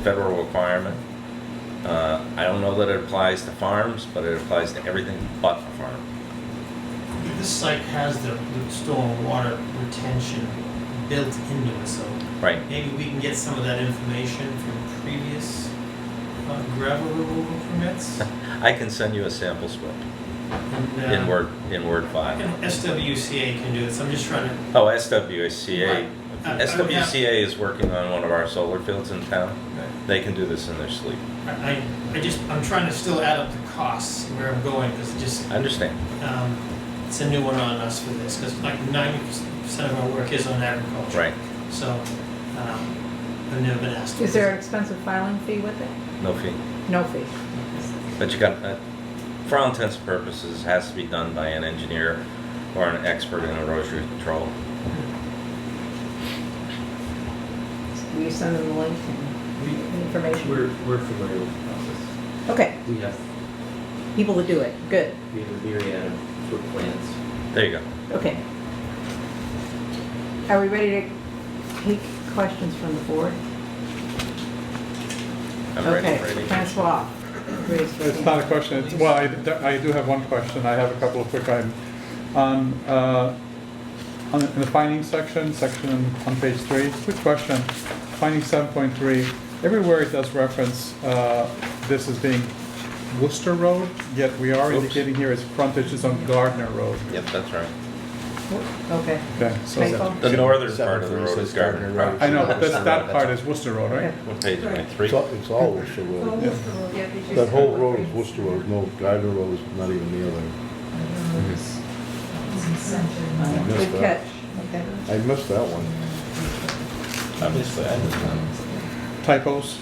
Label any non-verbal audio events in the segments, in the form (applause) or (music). federal requirement. Uh, I don't know that it applies to farms, but it applies to everything but a farm. This site has the, the storm water retention built into it, so Right, (laughs) maybe we can get some of that information from previous uh, gravel removal permits. I can send you a sample slip And, uh, in Word, in Word and file. SWCA can do it, so I'm just trying to, Oh, SWCA, I- I- SWCA is working on one of our solar fields in town. I, They can do this in their sleep. I- I just, I'm trying to still add up the costs and where I'm going, because it just, I understand. um, it's a new one on us for this, because like ninety percent of our work is on agriculture. Right, So, um, I've never been asked. to Is there an expensive filing fee with it? no fee. No fee. But you got, uh, for all intents and purposes, it has to be done by an engineer or an expert in erosion control. Will you send them the link and We, information? we're, we're familiar with the process. Okay, We have, people to do it, good, we have a myriad of sort of plans. There you go. okay. Are we ready to take questions from the board? I'm ready Okay, for any. Francois, raise your It's not hand. a question, it's, well, I d- I do have one question, I have a couple of quick items. On, uh, on, in the findings section, section on page three, quick question, finding seven point three, everywhere it does reference, uh, this as being Worcester Road, yet we are Oops. indicating here its frontage is on Gardner Road. Yep, that's right. Okay, Okay, so, Typo? The northern Seven part of the three road says is Gardner Gardner Road. I know, but Worcester that's, that Road, part that's- is Worcester Road, right? What page am I, three? It's all, it's all Worcester Oh, Road. Yeah, because That whole road is Worcester Road, no, Gardner Road is not even near there. Uh, missed good that. catch, okay. I missed that one. Um, Typos,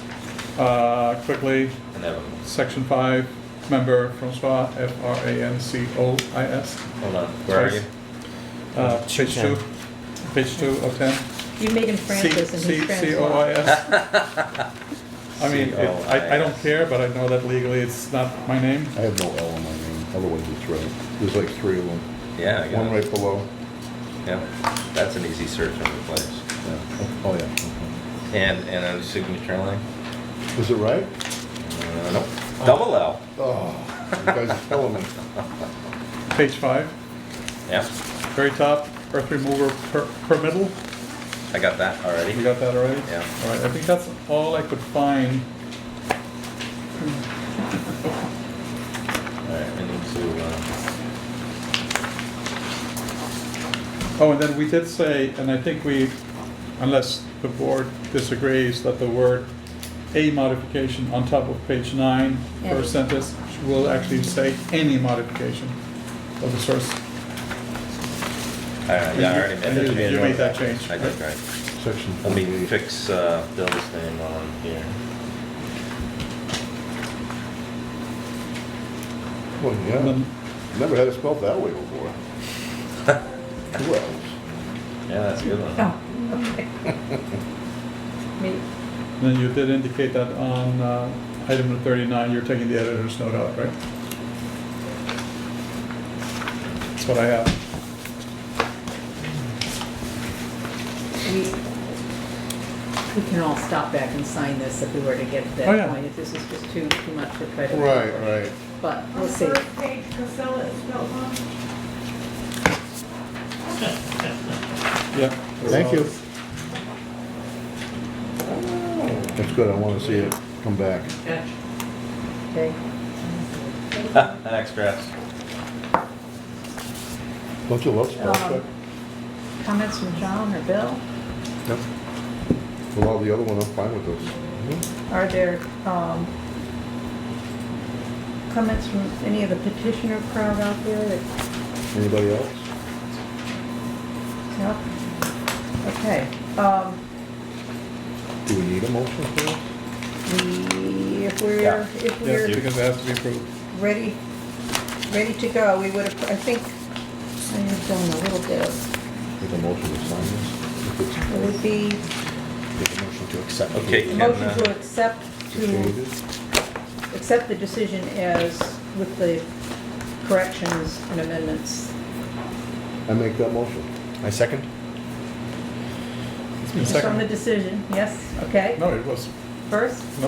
uh, quickly, Inevitable. section five, member Francois, F R A N C O I S. Hold on, where are you? Uh, Page two, page two of ten. You made him Francis and he's (laughs) Francois. C-O-I-S. I mean, it- I, I don't care, but I know that legally it's not my name. I have no L in my name, otherwise it's right. There's like three of them. Yeah, I One got it. right below. Yeah, that's an easy search and replace. Yeah. Oh, yeah. And, and a signature line? okay. Is it right? Uh, nope. Double L. Oh, you guys are killing me. Page five, Yeah, very top, earth remover per, per middle. I got that You already. got that already? Yeah. All right, I think that's all I could find. All right, I need to, uh, Oh, and then we did say, and I think we, unless the board disagrees, that the word "a modification" on top of page nine, Yeah. first sentence, will actually say any modification of the source. all right, yeah, I already And made you- that. you made that change, I did, right? right. Section Let me 48. fix uh, Bill's name on here. Well, And yeah. then Never had it spelled that (laughs) way before. Who else? Yeah, that's a good one. Oh, (laughs) okay. Me, And Then you did indicate that on uh, item number 39, you're taking the editor's note out, right? That's what I have. we, we can all stop back and sign this if we were to get to Oh, that yeah. point, if this is just too, too much to try to. Right, right. But On we'll the see. first page, Casella is spelled wrong. Yeah. Thank you. Oh. That's good, I wanna see it come back. Catch. Okay, (laughs) Thanks, Chris. Don't you love spell check? Um, Comments from John or Bill? Yep. Well, all the other one, I'm fine with those. Are there um, comments from any of the petitioner crowd out there that, Anybody else? no? Okay, um, Do we need a motion for this? we, if Yeah. we're, if Yes, we're because it has to be approved. ready, ready to go, we would have, I think, I've done a little bit of, Make a motion to sign this? it would be Make a motion to accept. Okay. a Can, motion uh, to accept, to Changes? accept the decision as with the corrections and amendments. I make that motion. I second. It's been Just on the seconded. decision, yes, okay? No, it was, first?